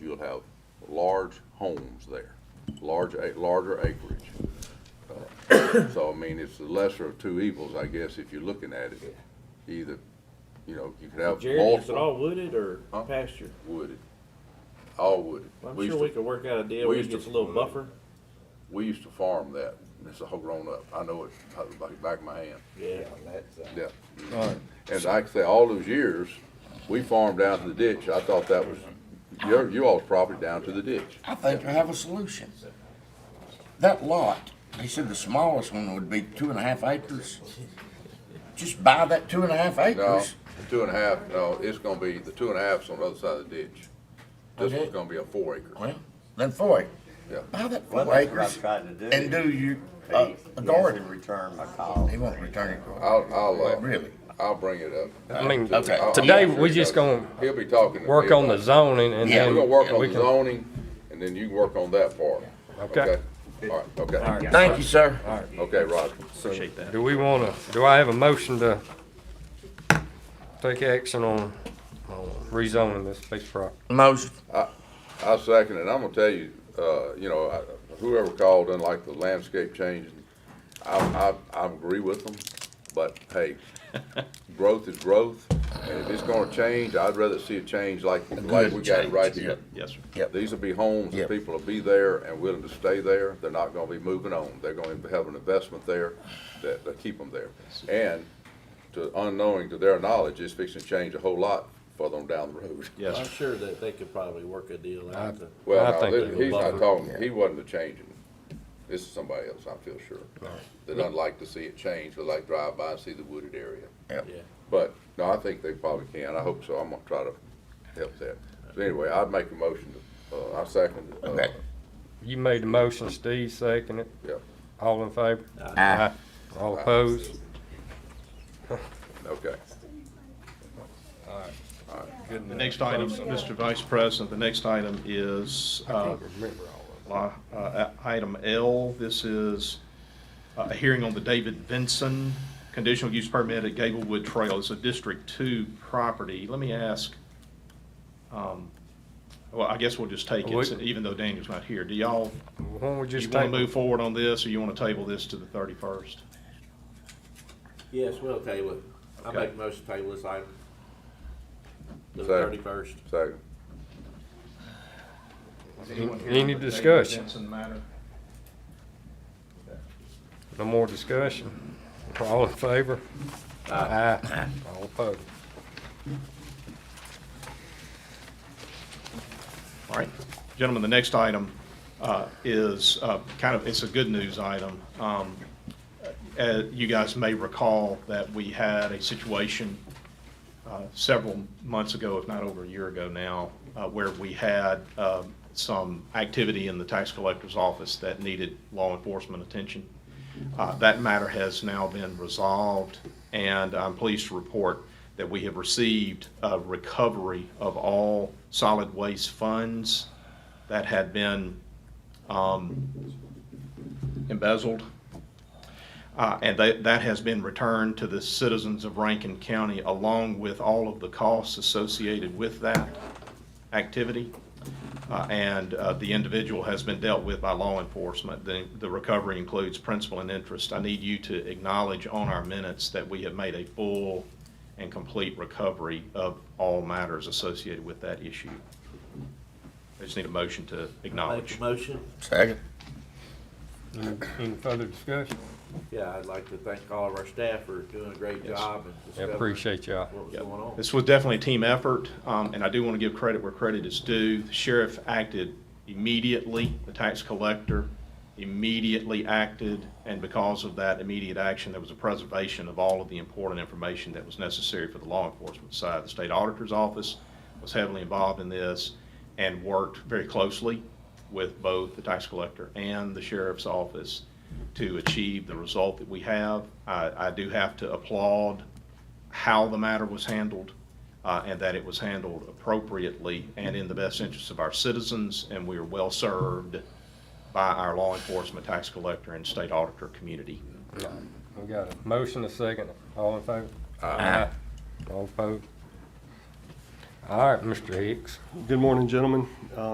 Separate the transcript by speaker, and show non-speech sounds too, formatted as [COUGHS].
Speaker 1: have large homes there, large, a- larger acreage. Uh, [COUGHS] So, I mean, it's the lesser of two evils, I guess, if you're looking at it. Either, you know, you could have
Speaker 2: Jerry, is it
Speaker 1: multiple
Speaker 2: all wooded or
Speaker 1: Huh?
Speaker 2: pasture?
Speaker 1: wooded, all wooded.
Speaker 2: I'm
Speaker 1: We
Speaker 2: sure
Speaker 1: used
Speaker 2: we
Speaker 1: to-
Speaker 2: could work out a deal,
Speaker 1: we
Speaker 2: we
Speaker 1: used to-
Speaker 2: get a little buffer.
Speaker 1: We used to farm that, and it's all grown up, I know it, out of the back- back of my hand,
Speaker 2: Yeah.
Speaker 3: that's, uh,
Speaker 1: yeah. And like I say, all those years, we farmed down to the ditch, I thought that was, your, you all's property down to the ditch.
Speaker 4: I think I have a solution. That lot, they said the smallest one would be two and a half acres. Just buy that two and a half
Speaker 1: No, the
Speaker 4: acres.
Speaker 1: two and a half, no, it's gonna be, the two and a half's on the other side of the ditch. This
Speaker 4: Okay.
Speaker 1: one's gonna be a four acre.
Speaker 4: Well, then four.
Speaker 1: Yeah.
Speaker 4: Buy that
Speaker 3: well,
Speaker 4: four
Speaker 3: that's what I'm
Speaker 4: acres
Speaker 3: trying to do.
Speaker 4: and do you,
Speaker 3: He-
Speaker 4: uh,
Speaker 3: he
Speaker 4: a
Speaker 3: hasn't
Speaker 4: garden.
Speaker 3: returned my call.
Speaker 4: He won't return it.
Speaker 1: I'll, I'll, uh,
Speaker 4: Really?
Speaker 1: I'll bring it up.
Speaker 5: I mean,
Speaker 4: Okay.
Speaker 1: I'll-
Speaker 5: today,
Speaker 1: I'll-
Speaker 5: we just gonna
Speaker 1: He'll be talking. to
Speaker 5: work
Speaker 1: me
Speaker 5: on
Speaker 1: about
Speaker 5: the
Speaker 1: it.
Speaker 5: zoning and
Speaker 4: Yeah,
Speaker 5: then.
Speaker 1: We're gonna work
Speaker 5: and
Speaker 1: on
Speaker 5: we
Speaker 1: the
Speaker 5: can-
Speaker 1: zoning, and then you can work on that part.
Speaker 5: Okay.
Speaker 1: All right, okay,
Speaker 4: Thank you, sir.
Speaker 1: okay, Roger.
Speaker 2: Appreciate that.
Speaker 5: Do we wanna, do I have a motion to take action on, on rezoning this piece of property?
Speaker 4: Motion.
Speaker 1: I second it. I'm gonna tell you, uh, you know, I- whoever called and like the landscape change, I, I, I agree with them, but hey, growth is growth. And if it's gonna change, I'd rather see a change like, like we got it right here.
Speaker 2: Yes, sir.
Speaker 4: Yep.
Speaker 1: These will be homes, that
Speaker 4: Yep.
Speaker 1: people will be there and willing to stay there. They're not gonna be moving on. They're gonna have an investment there that, that keep them there. And to unknowing, to their knowledge, it's fixing to change a whole lot further on down the road. [LAUGHS]
Speaker 2: Yes. I'm sure that they could probably work a deal out. to-
Speaker 5: I
Speaker 1: Well, no,
Speaker 5: think
Speaker 1: this-
Speaker 5: they
Speaker 2: will
Speaker 1: he's not
Speaker 2: buffer.
Speaker 1: talking, he wasn't a changing. This is somebody else, I feel sure. They do not like to see it change, they like drive by and see the wooded area.
Speaker 2: Yeah.
Speaker 1: But, no, I think they probably can, I hope so, I'm gonna try to help that. So anyway, I'd make a motion, to uh, I second it. uh,
Speaker 4: Okay.
Speaker 5: You made the motion, Steve second it.
Speaker 1: Yeah,
Speaker 5: All in favor?
Speaker 4: Aye.
Speaker 5: All opposed?
Speaker 1: Uh, okay.
Speaker 6: The next item, Mr. Vice President, the next item is uh,
Speaker 5: Remember all of
Speaker 6: li- uh, item L. This is uh, a hearing on the David Vinson conditional use permit at Gablewood Trail. It's a District Two property. Let me ask, um, well, I guess we'll just take it,
Speaker 5: We-
Speaker 6: even though Daniel's not here. Do y'all,
Speaker 5: them. Why don't we
Speaker 6: you
Speaker 5: just
Speaker 6: want to
Speaker 5: take,
Speaker 6: move forward on this, or you want to table this to the thirty-first?
Speaker 2: Yes, we'll table it. I
Speaker 6: Okay.
Speaker 2: make a motion to table this item. The
Speaker 1: Second.
Speaker 2: thirty-first.
Speaker 1: Second,
Speaker 5: any discussion?
Speaker 6: Vinson matter?
Speaker 5: No more discussion? All in favor? Aye. All opposed?
Speaker 6: All right. Gentlemen, the next item uh, is uh, kind of, it's a good news item. Um, uh, You guys may recall that we had a situation uh, several months ago, if not over a year ago now, uh, where we had um, some activity in the tax collector's office that needed law enforcement attention. Uh, That matter has now been resolved, and I'm pleased to report that we have received a recovery of all solid waste funds that had been um, embezzled. Uh, And that, that has been returned to the citizens of Rankin County along with all of the costs associated with that activity. Uh, And uh, the individual has been dealt with by law enforcement. The, the recovery includes principal and interest. I need you to acknowledge on our minutes that we have made a full and complete recovery of all matters associated with that issue. I just need a motion to
Speaker 2: Make
Speaker 6: acknowledge.
Speaker 2: a motion.
Speaker 4: Second.
Speaker 5: Any- Any further discussion?
Speaker 2: Yeah, I'd like to thank all of our staff for doing a great
Speaker 6: Yes.
Speaker 2: job and
Speaker 5: I
Speaker 2: discovering
Speaker 5: appreciate y'all.
Speaker 2: what was
Speaker 6: Yep.
Speaker 2: going on.
Speaker 6: This was definitely a team effort, um, and I do want to give credit where credit is due. The Sheriff acted immediately, the tax collector immediately acted, and because of that immediate action, there was a preservation of all of the important information that was necessary for the law enforcement side. The state auditor's office was heavily involved in this and worked very closely with both the tax collector and the sheriff's office to achieve the result that we have. I, I do have to applaud how the matter was handled, uh, and that it was handled appropriately and in the best interest of our citizens, and we are well served by our law enforcement, tax collector, and state auditor community.
Speaker 5: We got a motion, a second. All in favor? Aye. All opposed? All right, Mr. Hicks.
Speaker 7: Good morning, gentlemen.